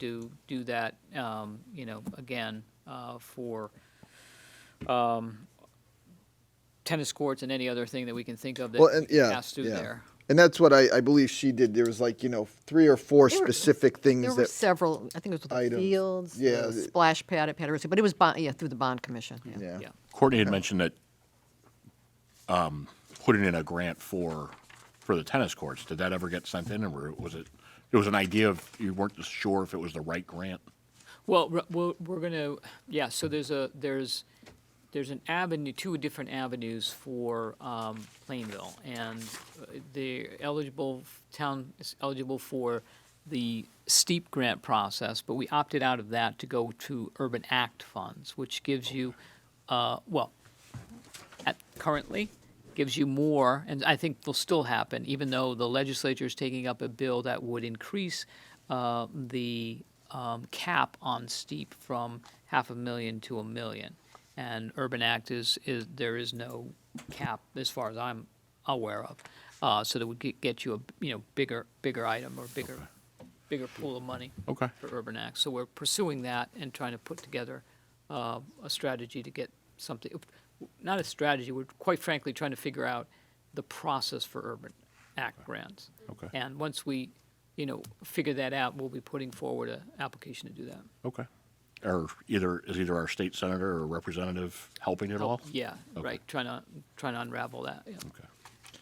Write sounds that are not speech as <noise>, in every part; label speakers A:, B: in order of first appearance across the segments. A: do, do that, um, you know, again, uh, for, um, tennis courts and any other thing that we can think of
B: Well, and
A: that
B: yeah,
A: pass through
B: yeah.
A: there.
B: And that's what I, I believe she did. There was like, you know, three or four
C: There were-
B: specific
C: There
B: things
C: were
B: that,
C: several, I think it was with the
B: Items.
C: fields,
B: Yeah,
C: the
B: the-
C: splash pad at Paderewski, but it was, bond- yeah, through the bond commission.
B: yeah.
A: Yeah.
D: Courtney had mentioned that um, putting in a grant for for the tennis courts. Did that ever get sent in, or was it? It was an idea of you weren't sure if it was the right grant.
A: Well, we're- we're, we're gonna, yeah, so there's a, there's, there's an avenue, two different avenues for, um, Plainville. And uh, the eligible, town is eligible for the steep grant process, but we opted out of that to go to Urban Act funds, which gives you, uh, well, at, currently gives you more, and I think will still happen, even though the legislature is taking up a bill that would increase uh, the um, cap on steep from half a million to a million. And Urban Act is, is there is no cap as far as I'm aware of, uh, so that would get, get you a you know bigger bigger item or bigger bigger pool of money
D: Okay.
A: for Urban Act. So we're pursuing that and trying to put together uh, a strategy to get something, not a strategy, we're quite frankly trying to figure out the process for Urban Act grants.
D: Okay.
A: And once we, you know, figure that out, we'll be putting forward an application to do that.
D: Okay. Or either is either our state senator or representative helping at all?
A: Yeah,
D: Okay.
A: right, trying to, trying to unravel that, yeah.
D: Okay.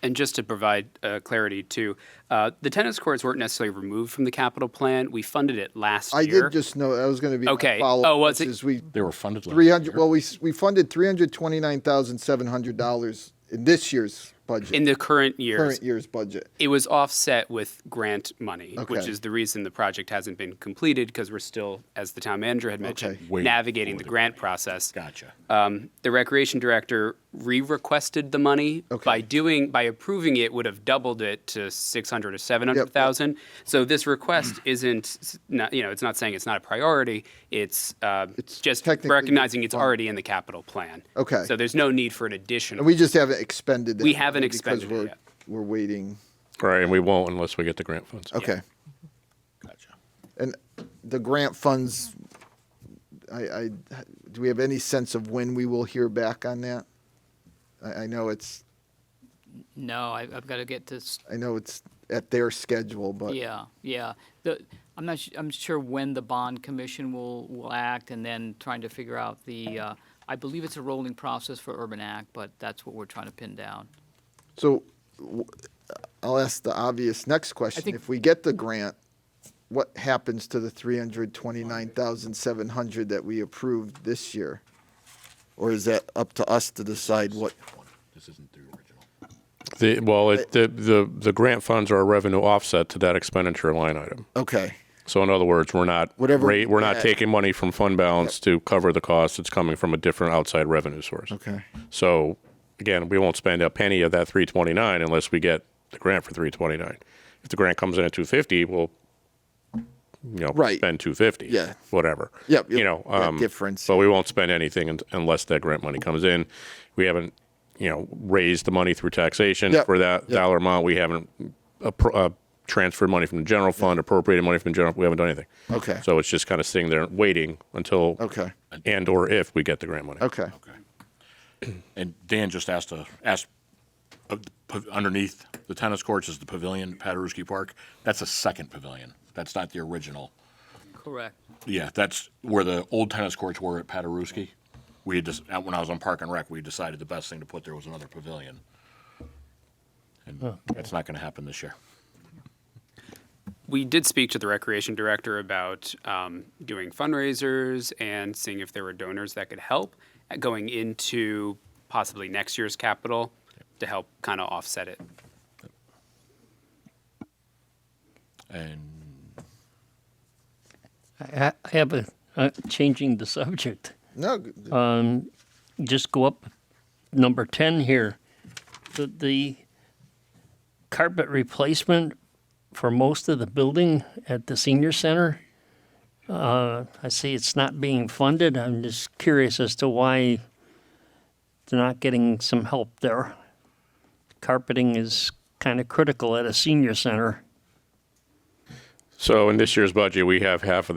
E: And just to provide uh, clarity too, uh, the tennis courts weren't necessarily removed from the capital plan. We funded it last
B: I
E: year.
B: did just know, that was going to be my
E: Okay.
B: follow-up.
E: Oh, was
B: which
E: it-
B: is we,
D: They were funded last
B: three hundred,
D: year.
B: well, we, s- we funded three hundred twenty-nine thousand seven hundred dollars in this year's
E: in
B: budget,
E: the current year.
B: current year's budget.
E: It was offset with grant money, which
B: Okay.
E: is the reason the project hasn't been completed because we're still, as the town manager had mentioned,
B: Okay.
D: Wait
E: navigating
D: for
E: the
D: the
E: grant process.
D: Gotcha.
E: Um, the recreation director re-requested the money
B: Okay.
E: by doing by approving it would have doubled it to six hundred or seven hundred thousand. So this request <clears throat> isn't, s- not, you know, it's not saying it's not a priority. It's, uh,
B: It's
E: just
B: technically
E: recognizing it's
B: fine.
E: already in the capital plan.
B: Okay.
E: So there's no need for an additional.
B: And we just haven't expended it.
E: We haven't expended
B: Because
E: it
B: we're,
E: yet.
B: we're waiting.
F: Right, and we won't unless we get the grant funds.
B: Okay.
D: Gotcha.
B: And the grant funds, I, I, do we have any sense of when we will hear back on that? I, I know it's,
A: No, I- I've got to get this
B: I know it's at their schedule, but.
A: Yeah, yeah. The, I'm not, su- I'm sure when the bond commission will, will act and then trying to figure out the, uh, I believe it's a rolling process for Urban Act, but that's what we're trying to pin down.
B: So w- I'll ask the obvious next question.
A: think-
B: If we get the grant, what happens to the three hundred twenty-nine thousand seven hundred that we approved this year? Or is that up to us to decide what?
D: This isn't the original.
F: The, well, it, the, the, the grant funds are a revenue offset to that expenditure line item.
B: Okay,
F: So in other words, we're not
B: Whatever we
F: rate, we're not
B: get.
F: taking money from fund balance to cover the cost. It's coming from a different outside revenue source.
B: okay.
F: So again, we won't spend a penny of that 329 unless we get the grant for 329. If the grant comes in at 250, we'll you know
B: Right.
F: spend 250.
B: Yeah.
F: whatever.
B: Yep,
F: You
B: yep,
F: know
B: that
F: um,
B: difference.
F: But we won't spend anything un- unless that grant money comes in. We haven't you know raised the money through taxation
B: Yep,
F: for that
B: yep.
F: dollar amount. We haven't appro- uh, transferred money from the general fund, appropriated money from the general. We haven't done anything.
B: Okay.
F: So it's just kind of sitting there waiting until
B: Okay.
F: and or if we get the grant money.
B: Okay,
D: And Dan just asked to ask uh, p- underneath the tennis courts is the pavilion at Paderewski Park. That's a second pavilion. That's not the original.
A: Correct.
D: Yeah, that's where the old tennis courts were at Paderewski. We had just, when I was on Park and Rec, we decided the best thing to put there was another pavilion. And that's not going to happen this year.
E: We did speak to the recreation director about um, doing fundraisers and seeing if there were donors that could help going into possibly next year's capital to help kind of offset it.
D: And
G: I I have a, uh, changing the subject.
B: no, g-
G: Just go up number 10 here. The, the carpet replacement for most of the building at the senior center. Uh, I see it's not being funded. I'm just curious as to why they're not getting some help there. Carpeting is kind of critical at a senior center.
F: So in this year's budget, we have half of that.